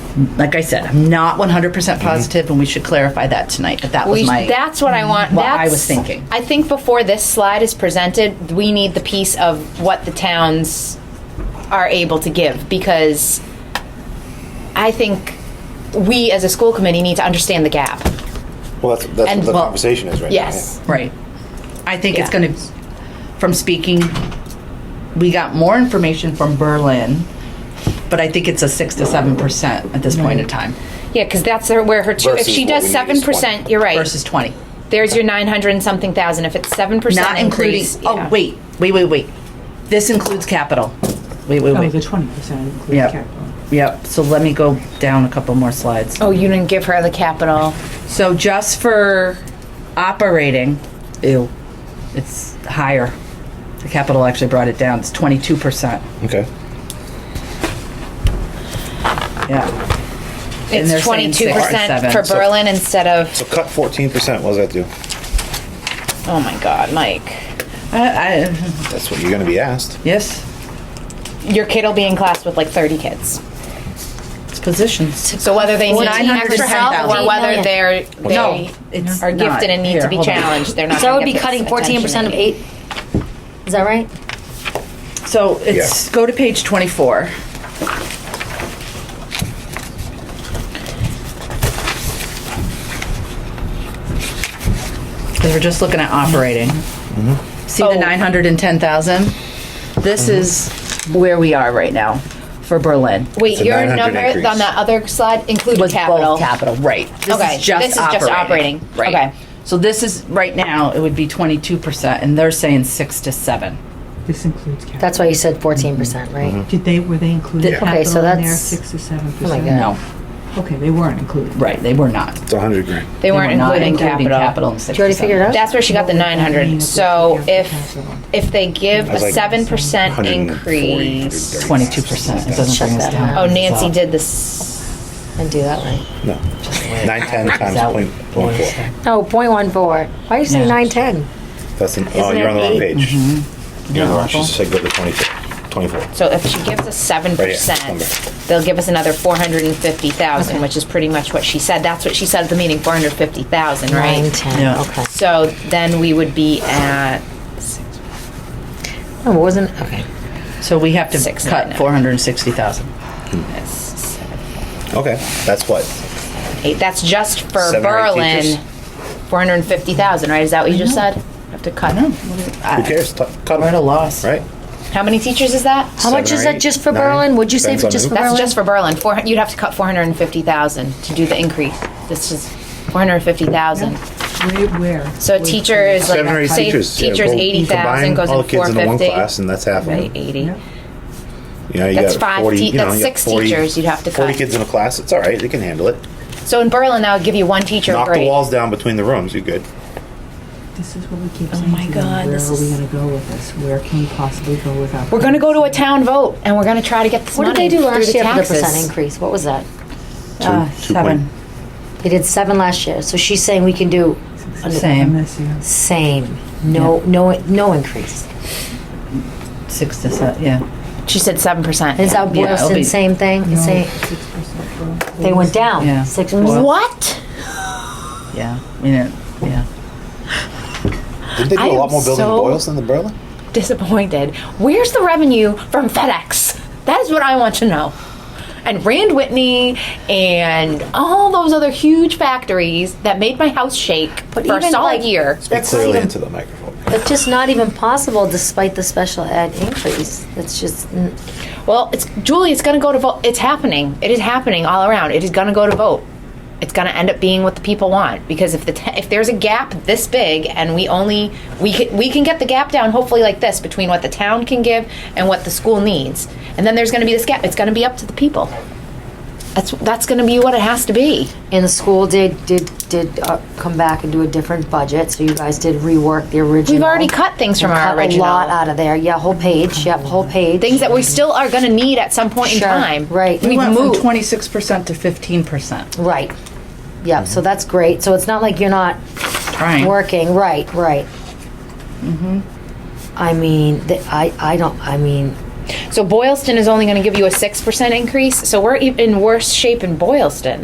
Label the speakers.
Speaker 1: like I said, I'm not 100% positive, and we should clarify that tonight. But that was
Speaker 2: We,
Speaker 1: my.
Speaker 2: that's what I want.
Speaker 1: what I
Speaker 2: that's-
Speaker 1: was thinking.
Speaker 2: I think before this slide is presented, we need the piece of what the towns are able to give because I think we as a school committee need to understand the gap.
Speaker 3: Well, that's, that's
Speaker 2: And-
Speaker 3: what the
Speaker 2: well,
Speaker 3: conversation is right now.
Speaker 2: Yes.
Speaker 1: Right. I think it's
Speaker 2: Yeah.
Speaker 1: going to, from speaking, we got more information from Berlin, but I think it's a six to seven percent at this point in time
Speaker 2: Yeah, because that's her- where her two. If
Speaker 3: Versus
Speaker 2: she
Speaker 3: what
Speaker 2: does
Speaker 3: we need
Speaker 2: seven
Speaker 3: is one.
Speaker 2: percent, you're right.
Speaker 1: versus twenty,
Speaker 2: There's your nine hundred and something thousand. If it's seven percent,
Speaker 1: not including. Oh wait, wait, wait, wait. This includes capital. Wait, wait,
Speaker 4: Oh,
Speaker 1: wait.
Speaker 4: the twenty percent
Speaker 1: Yep.
Speaker 4: includes capital.
Speaker 1: Yep. So let me go down a couple more slides.
Speaker 2: Oh, you didn't give her the capital.
Speaker 1: So just for operating, ew, it's higher. The capital actually brought it down. It's twenty-two percent.
Speaker 3: Okay.
Speaker 1: Yeah. And they're
Speaker 2: It's
Speaker 1: saying
Speaker 2: twenty two percent
Speaker 1: 6%.
Speaker 2: for
Speaker 1: So-
Speaker 2: Berlin instead of.
Speaker 3: So cut 14%. What does that do?
Speaker 2: Oh my God, Mike,
Speaker 1: I, I,
Speaker 3: That's what you're going to be asked.
Speaker 1: yes,
Speaker 2: your kid will be in class with like thirty kids.
Speaker 1: it's positions.
Speaker 2: So whether they need extra
Speaker 1: 900,000.
Speaker 2: help or whether they're they
Speaker 1: No, it's
Speaker 2: are
Speaker 1: not.
Speaker 2: gifted and need
Speaker 1: Here,
Speaker 2: to be
Speaker 1: hold on.
Speaker 2: challenged, they're not.
Speaker 5: So I would
Speaker 2: gonna
Speaker 5: be
Speaker 2: get this
Speaker 5: cutting
Speaker 2: attention
Speaker 5: fourteen percent of
Speaker 2: they
Speaker 5: eight. Is that right?
Speaker 1: So it's,
Speaker 3: Yeah.
Speaker 1: go to page twenty-four. Because we're just looking at operating. See the
Speaker 2: Oh.
Speaker 1: nine hundred and ten thousand? This is where we are right now for Berlin.
Speaker 2: need. Wait,
Speaker 3: a
Speaker 2: your
Speaker 3: 900
Speaker 2: number
Speaker 3: increase.
Speaker 2: on that other slide included
Speaker 1: Was
Speaker 2: capital.
Speaker 1: both capital, right. This
Speaker 2: Okay,
Speaker 1: is just
Speaker 2: this is just operating,
Speaker 1: Right.
Speaker 2: okay.
Speaker 1: So this is, right now, it would be twenty-two percent, and they're saying six to seven.
Speaker 4: This includes capital.
Speaker 5: That's why you said fourteen percent, right?
Speaker 1: Mm-hmm.
Speaker 4: Did they, were they included
Speaker 1: Yeah.
Speaker 5: Okay, so
Speaker 4: capital in there,
Speaker 5: that's-
Speaker 4: six to seven
Speaker 5: Oh my
Speaker 4: percent?
Speaker 5: God.
Speaker 1: No,
Speaker 4: Okay, they weren't included.
Speaker 1: right, they were not.
Speaker 3: It's 100 grand.
Speaker 2: They weren't
Speaker 1: were not
Speaker 2: including capital.
Speaker 1: in
Speaker 5: Did you
Speaker 1: 67.
Speaker 5: already figure it out?
Speaker 2: That's where she got the nine hundred. So if if they give
Speaker 3: That's
Speaker 2: a
Speaker 3: like
Speaker 2: seven percent
Speaker 3: 140,
Speaker 2: increase,
Speaker 1: 22 percent. It doesn't
Speaker 5: Shut
Speaker 1: bring us
Speaker 5: that
Speaker 1: down.
Speaker 5: out.
Speaker 2: oh Nancy did this.
Speaker 5: And do that right.
Speaker 3: No. 910 times
Speaker 1: out.
Speaker 3: point, point four.
Speaker 5: No, point one four. Why are you saying
Speaker 1: Yeah.
Speaker 5: nine ten?
Speaker 3: That's an, oh,
Speaker 5: Isn't
Speaker 3: you're on the
Speaker 5: it
Speaker 3: wrong
Speaker 5: eight?
Speaker 3: page. You're on the wrong. She
Speaker 1: Awful.
Speaker 3: said go to 22, 24.
Speaker 2: So if she gives us seven
Speaker 3: Right here,
Speaker 2: percent,
Speaker 3: number.
Speaker 2: they'll give us another four hundred and fifty thousand, which is pretty much what she said. That's what she said at the meeting, four hundred fifty thousand,
Speaker 5: Nine
Speaker 2: right?
Speaker 5: ten,
Speaker 1: Yeah.
Speaker 5: okay.
Speaker 2: So then we would be at
Speaker 5: No, Oh, it wasn't, okay.
Speaker 1: So we have to
Speaker 2: Six, nine,
Speaker 1: cut
Speaker 2: nine.
Speaker 1: 460,000.
Speaker 3: Okay. That's what?
Speaker 2: eight. That's just for
Speaker 3: Seven or eight
Speaker 2: Berlin,
Speaker 3: teachers?
Speaker 2: four hundred and fifty thousand, right? Is that what you just said? Have to cut.
Speaker 3: Who cares? T- Cut
Speaker 1: We're at a
Speaker 3: them.
Speaker 1: loss.
Speaker 3: Right?
Speaker 2: How many teachers is that?
Speaker 5: How much
Speaker 3: Seven or
Speaker 5: is that
Speaker 3: eight,
Speaker 5: just for
Speaker 3: nine,
Speaker 5: Berlin? Would you say
Speaker 3: depends on
Speaker 5: just
Speaker 3: who.
Speaker 5: for
Speaker 2: That's
Speaker 5: Berlin?
Speaker 2: just for Berlin. Four, hun- you'd have to cut four hundred and fifty thousand to do the increase. This is four hundred and fifty thousand.
Speaker 4: Where, where?
Speaker 2: So a teacher is like,
Speaker 3: Seven or eight
Speaker 2: say
Speaker 3: teachers. yeah,
Speaker 2: teacher's
Speaker 3: go
Speaker 2: eighty thousand
Speaker 3: combine
Speaker 2: goes
Speaker 3: all
Speaker 2: in
Speaker 3: the kids
Speaker 2: four
Speaker 3: into one
Speaker 2: fifty.
Speaker 3: class, and that's half of
Speaker 2: Right,
Speaker 3: them.
Speaker 2: eighty.
Speaker 4: Yeah.
Speaker 3: You know, you
Speaker 2: That's
Speaker 3: got
Speaker 2: five
Speaker 3: 40,
Speaker 2: te-
Speaker 3: you know,
Speaker 2: that's
Speaker 3: you got
Speaker 2: six teachers you'd have to
Speaker 3: 40
Speaker 2: cut.
Speaker 3: kids in a class. It's all right. They can handle it.
Speaker 2: So in Berlin, that would give you one teacher a
Speaker 3: Knock the
Speaker 2: grade.
Speaker 3: walls down between the rooms. You're good.
Speaker 4: This is what we keep saying
Speaker 2: Oh my
Speaker 4: to them,
Speaker 2: God,
Speaker 4: where
Speaker 2: this
Speaker 4: are we
Speaker 2: is-
Speaker 4: gonna go with this? Where can we possibly go with that?
Speaker 2: We're gonna go to a town vote and we're gonna try to get this
Speaker 5: What did they
Speaker 2: money
Speaker 5: do
Speaker 2: through
Speaker 5: last
Speaker 2: the
Speaker 5: year for the percent
Speaker 2: taxes.
Speaker 5: increase? What was that?
Speaker 3: Two,
Speaker 1: Ah,
Speaker 3: two
Speaker 1: seven.
Speaker 3: Point,
Speaker 5: They did seven last year, so she's saying we can do
Speaker 1: Same.
Speaker 4: This year.
Speaker 5: same, no, no, no increase.
Speaker 1: Six to seven, yeah.
Speaker 2: She said seven percent.
Speaker 5: Is that
Speaker 1: Yeah, it'll be-
Speaker 5: Boylston, same thing?
Speaker 4: No,
Speaker 5: Same,
Speaker 4: six percent for-
Speaker 5: they went
Speaker 1: Yeah.
Speaker 5: down six percent.
Speaker 2: What?
Speaker 1: Yeah. I mean, it- yeah.
Speaker 3: Did they do
Speaker 2: I
Speaker 3: a
Speaker 2: am
Speaker 3: lot more building
Speaker 2: so-
Speaker 3: in Boylston than Berlin?
Speaker 2: Disappointed. Where's the revenue from FedEx? That is what I want to know. And Rand Whitney and all those other huge factories that made my house shake
Speaker 5: But
Speaker 2: for a
Speaker 5: even,
Speaker 2: solid
Speaker 5: like-
Speaker 2: year.
Speaker 3: Speak
Speaker 5: That's not
Speaker 3: clearly
Speaker 5: even-
Speaker 3: into the microphone.
Speaker 5: It's just not even possible despite the special ed increase. It's just, n-
Speaker 2: Well, it's Julie. It's going to go to vote. It's happening. It is happening all around. It is going to go to vote. It's going to end up being what the people want because if the t- if there's a gap this big and we only we can we can get the gap down hopefully like this between what the town can give and what the school needs and then there's going to be this gap. It's going to be up to the people. That's that's going to be what it has to be.
Speaker 5: and the school did, did, did uh, come back and do a different budget, so you guys did rework the original.
Speaker 2: We've already cut things from
Speaker 5: You
Speaker 2: our
Speaker 5: cut
Speaker 2: original
Speaker 5: A lot out of there, yeah, whole page, yep, whole page.
Speaker 2: things that we still are going to need at some point
Speaker 5: Sure,
Speaker 2: in time.
Speaker 5: right. We
Speaker 1: We
Speaker 2: We've
Speaker 1: went from
Speaker 2: moved.
Speaker 1: 26% to 15%.
Speaker 5: Right, yeah, so that's great, so it's not like you're not
Speaker 1: Trying.
Speaker 5: working, right, right. I mean, th- I, I don't, I mean,
Speaker 2: So Boylston is only going to give you a 6% increase. So we're e- in worse shape in Boylston.